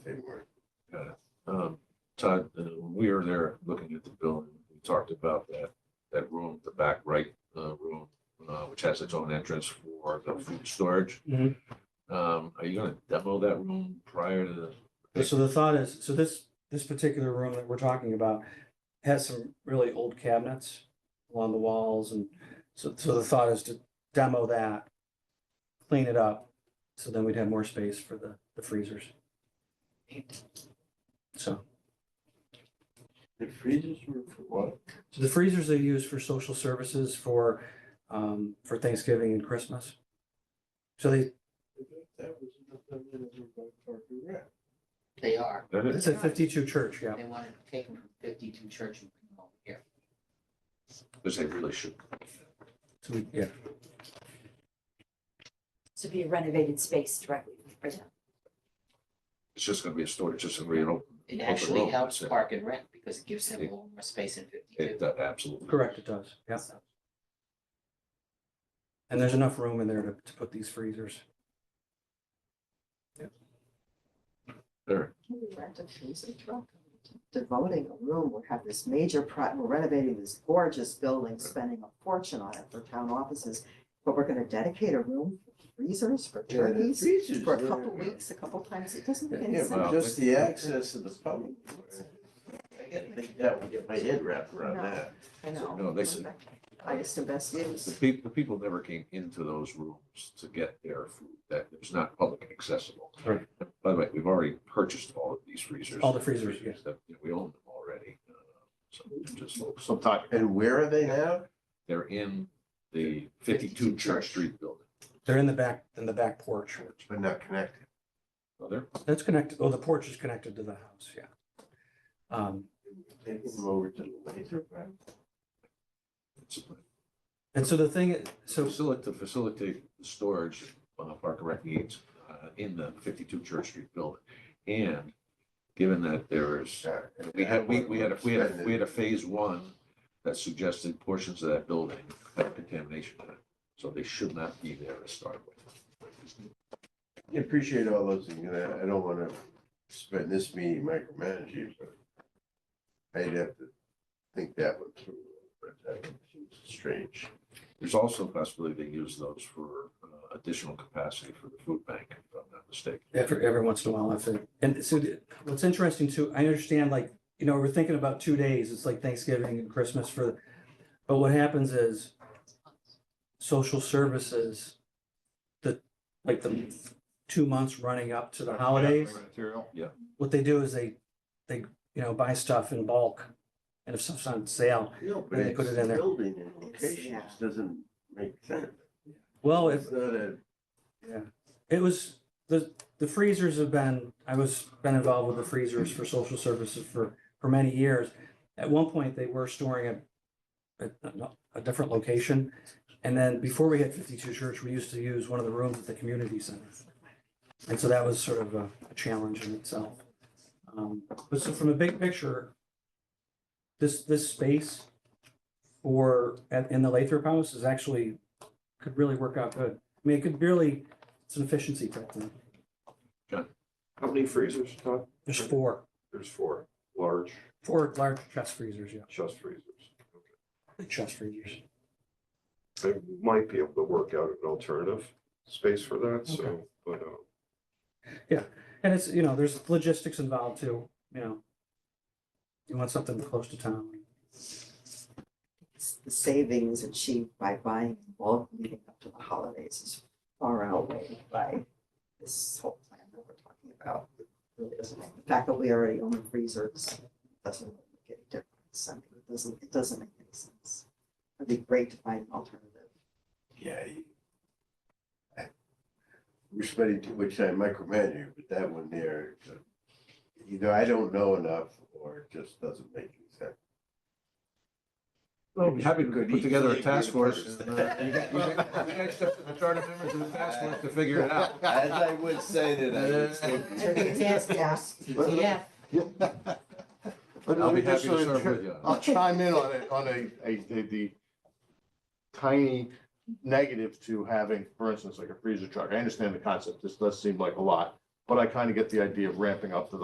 Todd, uh, when we were there looking at the building, we talked about that, that room, the back right uh, room, uh, which has its own entrance for the food storage. Mhm. Um, Are you going to demo that room prior to the? So the thought is, so this, this particular room that we're talking about has some really old cabinets along the walls and so, so the thought is to demo that, clean it up, so then we'd have more space for the, the freezers. So, The freezers were for what? so the freezers they use for social services for, um, for Thanksgiving and Christmas. So they, That was another one that were by Park and Rec. They are. That is, it's a fifty-two church, yeah. They wanted to take them from fifty-two church and bring them over here. because they really should. So we, yeah, to be a renovated space directly from prison. It's just going to be a storage, just a real open. It open actually room. helps That's it. park and rent because it gives them a little more space in It, fifty-two. that absolutely. correct, it does, yeah. So, And there's enough room in there to, to put these freezers. There. Can we rent a freezer truck? Devoting a room, we have this major pro, we're renovating this gorgeous building, spending a fortune on it for town offices. But we're gonna dedicate a room for freezers for Yeah, the turkeys freezers for a there. couple weeks, a couple times, it doesn't make any Yeah, sense. but Well, just the access of the public. I gotta think that would get my head wrapped around No. that. I know. No, they said- Highest and best The use. people, the people never came into those rooms to get their food, that it was not public accessible. Right. By the way, we've already purchased all of these freezers. All the freezers, yeah. That, you know, we own them already. uh, So we just, look- so Sometime. And where are they now? they're in the fifty-two Church Street building. They're in the back, in the back porch. But not connected. So they're, That's connected, oh, the porch is connected to the house, yeah. Um, Take them over to the laser. right? it's and so the thing, i- to so, facilitate, to facilitate the storage of Park and Rec needs uh, in the fifty-two Church Street building. And given that there's We had, we, we had, a we had, a we had a phase one that suggested portions of that building had contamination in it. So they should not be there to start with. I Appreciate all those things, and I, I don't wanna spend this meeting micromanaging, but I'd have to think that one through. but that seems Strange. There's also a possibility they use those for uh, additional capacity for the food bank, if I'm not mistaken. every, every once in a while, I think, and so the- what's interesting too, I understand like, you know, we're thinking about two days, it's like Thanksgiving and Christmas for, but what happens is social services, the, like the two months running up to the holidays, what they do is they, they, you know, buy stuff in bulk. And if stuff's on sale, No, but And they put it's it in there. building and It's- locations doesn't make sense. Well, if, It's not a, it was, the, the freezers have been, I was, been involved with the freezers for social services for, for many years. At one point, they were storing at, at a- a different location. And then before we had fifty-two church, we used to use one of the rooms at the community center. And so that was sort of a, a challenge in itself. Um, but so from a big picture, this, this space for, at, in the Lathrop House is actually, could really work out good. I mean, it could really, it's an efficiency type thing. How many freezers, Todd? There's four, There's four, large four large chest freezers, yeah, chest freezers. chest freezers. I might be able to work out an alternative space for that, so, but, uh, And it's, you know, there's logistics involved too, you know. You want something close to town. It's The savings achieved by buying in bulk leading up to the holidays is far outweighed by this whole plan that we're talking about. It Really doesn't make, the fact that we already own freezers doesn't really make any difference. I mean, it doesn't, it doesn't make any sense. It'd be great to find an alternative. yeah. you- We're spending too much time micromanaging, but that one there, uh, either I don't know enough or it just doesn't make any sense. Well, we're happy to put together a task force. Good and, uh, You got- you got- you got stuff in the charter members of the task force to figure it out. As I would say that I would still be- I think it's asked, asked, yeah, But I'll let be me just happy to sort serve of, with you. on I'll chime in on it, on a, a, a- the tiny negative to having, for instance, like a freezer truck. I understand the concept. This does seem like a lot, but I kind of get the idea of ramping up to the